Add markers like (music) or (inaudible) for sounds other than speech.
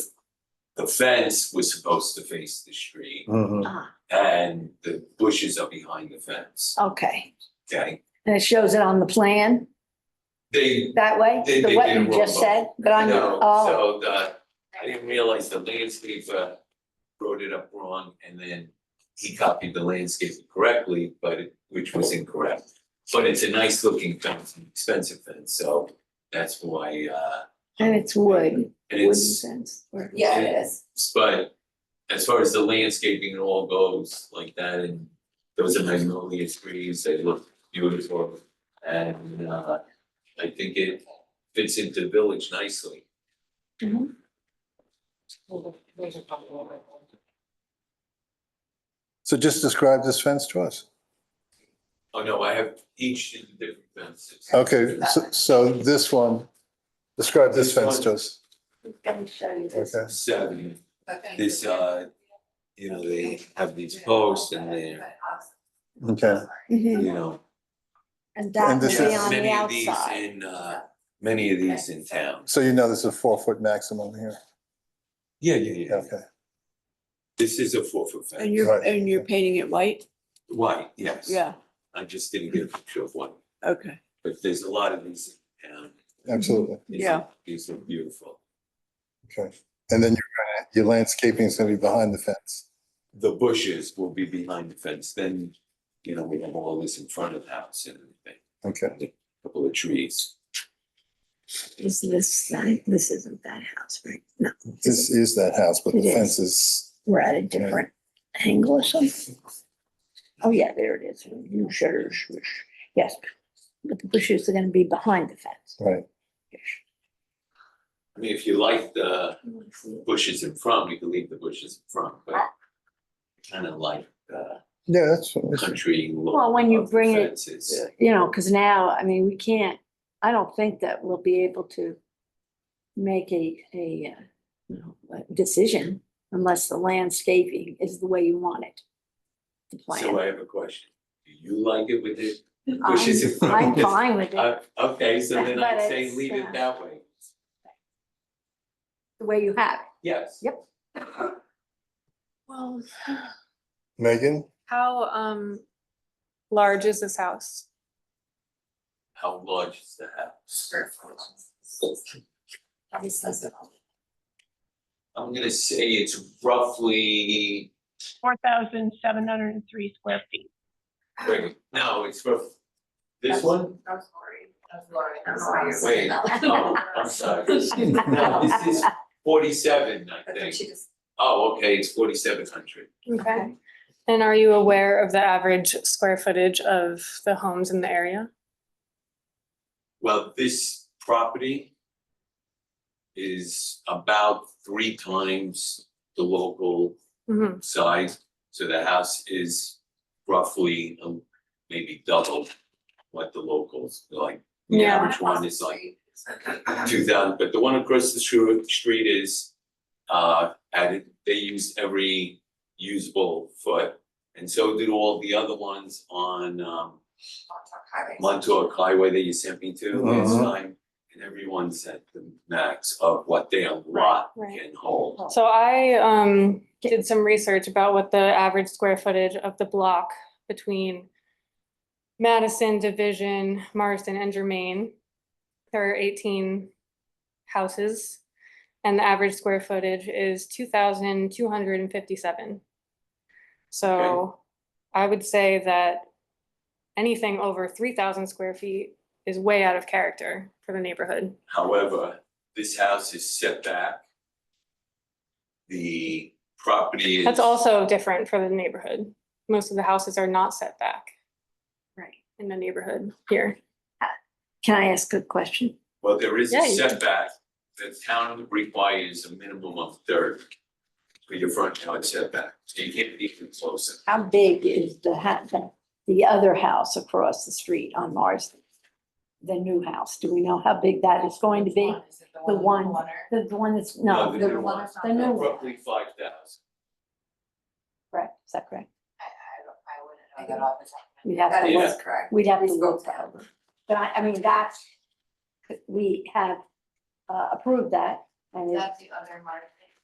the fence was supposed to face the street Mhm. Ah, and the bushes are behind the fence, okay. okay? And it shows it on the plan They, that way? They- they The what did it you just wrong, said, but on, you your know, oh, so the, I didn't realize the landscaper wrote it up wrong and then he copied the landscape correctly, but it, which was incorrect. But it's a nice looking fence, an expensive fence, so that's why, uh, and it's wood, and wooden it's fence. or- Yeah, it is. But as far as the landscaping and all goes like that and those are magnolia trees, they look beautiful. And uh I think it fits into the village nicely. So just describe this fence to us. Oh no, I have each in different fences. Okay, so, so this one, describe this fence to us. Let me show you this. Okay. Seven, Okay. this uh, you know, they have these posts and they're, uh, Okay. Mhm. you know, And that And would this be is- on the many of these outside. in uh, many of these in town. So you know there's a four foot maximum here. Yeah, yeah, yeah. Okay. This is a four foot fence. And you're, Right. and you're painting it white? White, yes. Yeah, I just didn't get a picture of one, okay. but there's a lot of these in town. Absolutely. These are- Yeah. These are beautiful. Okay. And then you're gonna, your landscaping is gonna be behind the fence. The bushes will be behind the fence, then, you know, we have all this in front of the house and everything, Okay. a couple of trees. Is this side, this isn't that house, right? No, This is that house, but the It is. fence is, we're at a different angle or something. Oh, yeah, there it is. You sure, sure, sure. Yes, but the bushes are gonna be behind the fence. right. I mean, if you like the bushes in front, you can leave the bushes in front, but kind of like the Yeah, that's, that's- country look Well, when you of the bring it- fences. you know, because now, I mean, we can't, I don't think that we'll be able to make a, a, uh, you know, a decision unless the landscaping is the way you want it. The So plan. I have a question, do you like it with the I'm- bushes in front? (laughs) I'm fine with it, Uh, okay, so then But I'd say it's, leave uh, it that way, the way you have it. yes. Yep. Well, Megan, how um large is this house? How large is the house? I'm gonna say it's roughly, four thousand seven hundred and three square feet. wait, no, it's rough. This one? Wait, oh, I'm sorry. No, this is forty-seven, I think. Oh, okay, it's forty-seven hundred. Okay. And are you aware of the average square footage of the homes in the area? Well, this property is about three times the local Mm-hmm. size, so the house is roughly um, maybe double what the locals, like, the Yeah. average one is like two thousand, but the one across the shru- street is, uh, added, they use every usable foot. And so did all the other ones on, um, Montauk Highway that you sent me to last Mhm. time. And everyone's at the max of what their lot right. can hold. So I um did some research about what the average square footage of the block between Madison, Division, Marsden, and Germain. There are eighteen houses, and the average square footage is two thousand two hundred and fifty-seven. So I would say that anything over three thousand square feet is way out of character for the neighborhood. However, this house is set back. The property is. That's also different for the neighborhood. Most of the houses are not set back Right. in the neighborhood here. Can I ask a question? Well, there is Yeah, a you- setback. The town requires a minimum of thirty for your front yard setback, so you can't be even closer. How big is the ha- the, the other house across the street on Marsden? The new house, do we know how big that is going to be? The one- The, the one that's, no, No, the the, new one- one. the new one, Roughly five thousand. correct, is that correct? I got off the top. We'd have That to Yeah. look, is correct. we'd have to Please go look that over. But I, I mean, that's, we have uh, approved that and it- the other market.